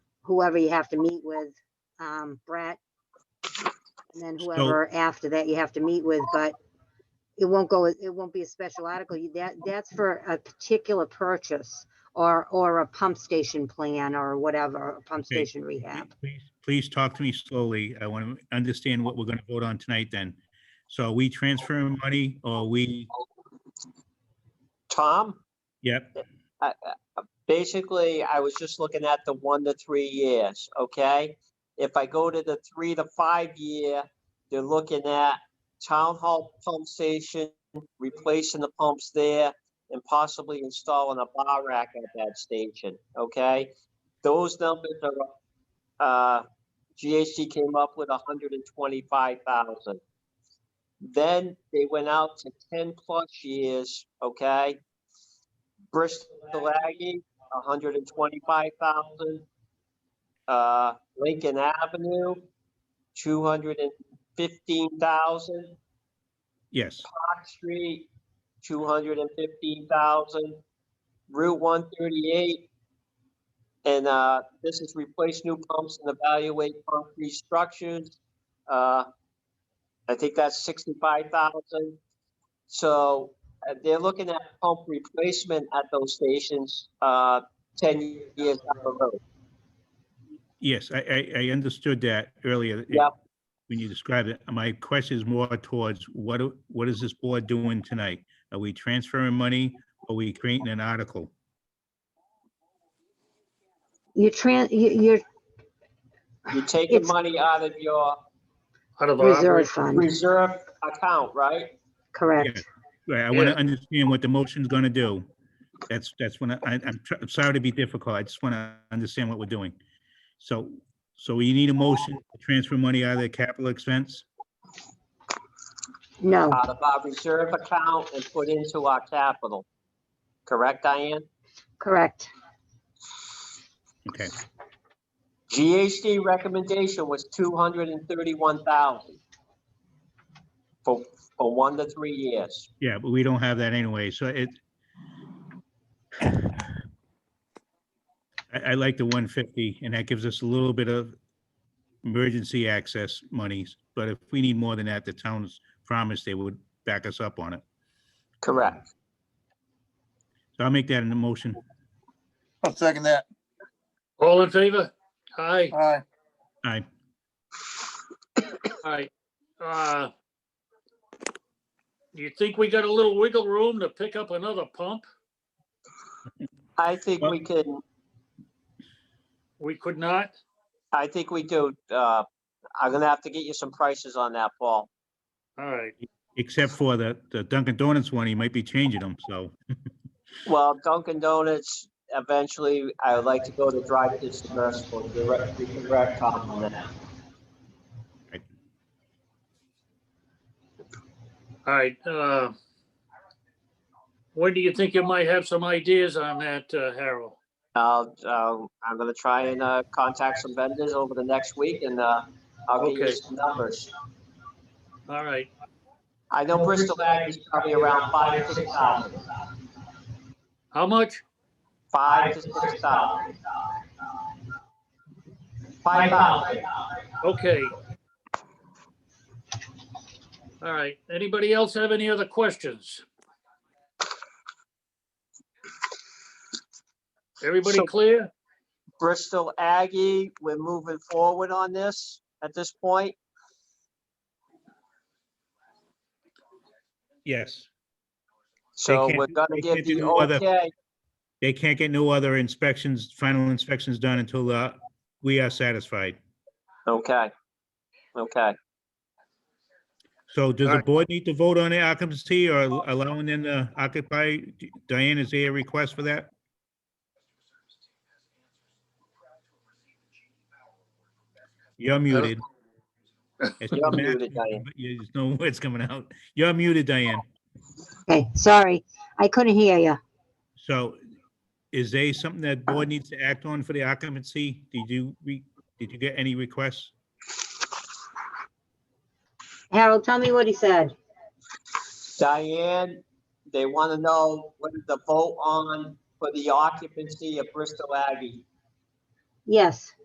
whoever you have to meet with, um, Brett. And then whoever after that you have to meet with, but it won't go, it won't be a special article. You- That, that's for a particular purchase or, or a pump station plan or whatever, a pump Okay. station rehab. Please, please talk to me slowly. I want to understand what we're going to vote on tonight then. So are we transferring money or we, Tom, yep, basically, I was just looking at the one to three years, okay? If I go to the three to five year, they're looking at town hall pump station, replacing the pumps there, and possibly installing a bar rack at that station, okay? Those numbers are, uh, GHD came up with hundred and twenty-five thousand. Then they went out to ten plus years, okay? Bristol Aggie, hundred and twenty-five thousand. Uh, Lincoln Avenue, two hundred and fifteen thousand. yes. Park Street, two hundred and fifteen thousand. Route one thirty-eight. And, uh, this is replace new pumps and evaluate concrete structures. Uh, I think that's sixty-five thousand. So uh, they're looking at pump replacement at those stations, uh, ten years down the road. Yes, I, I, I understood that earlier. Yep. When you described it, my question is more towards what, do- what is this board doing tonight? Are we transferring money or are we creating an article? You're tran, you- you're You're taking It's- money out of your Out of our reserve operation. fund, reserve account, right? correct? Right, I want Yeah. to understand what the motion's going to do. That's, that's when I, I- I'm, tr- I'm sorry to be difficult. I just want to understand what we're doing. So, so you need a motion to transfer money out of the capital expense? No, out of our reserve account and put into our capital. Correct, Diane? correct. Okay, GHD recommendation was two hundred and thirty-one thousand for, for one to three years. yeah, but we don't have that anyway, so it. I, I like the one fifty, and that gives us a little bit of emergency access monies, but if we need more than that, the town's promised they would back us up on it. Correct. So I'll make that in a motion. I'll second that. All in favor? Aye, Aye. Aye. aye. Uh, Do you think we got a little wiggle room to pick up another pump? I think we can, We could not? I think we do, uh, I'm gonna have to get you some prices on that, Paul. All right, Except for the, the Dunkin' Donuts one, he might be changing them, so, Well, Dunkin' Donuts, eventually, I would like to go to drive this merciful, direct, direct comment on that. all right. uh, When do you think you might have some ideas on that, uh, Harold? I'll, um, I'm gonna try and, uh, contact some vendors over the next week and, uh, I'll get Okay. you some numbers. All right, I know Bristol Ag is probably around five to six thousand, how much? five to six thousand. Five thousand. Okay. All right, anybody else have any other questions? Everybody So- clear? Bristol Aggie, we're moving forward on this at this point. yes. So can't we're do- gonna they give can't do the no other- okay. They can't get no other inspections, final inspections done until, uh, we are satisfied. Okay. Okay. So does the Alright. board need to vote on the occupancy or allowing them to occupy? Diane, is there a request for that? You're muted. It's You're coming out, muted, Diane. but you- There's no words coming out. You're muted, Diane. Okay, sorry. I couldn't hear you. So is there something that board needs to act on for the occupancy? Did you, re- did you get any requests? Harold, tell me what he said. Diane, they wanna know what is the vote on for the occupancy of Bristol Aggie. Yes.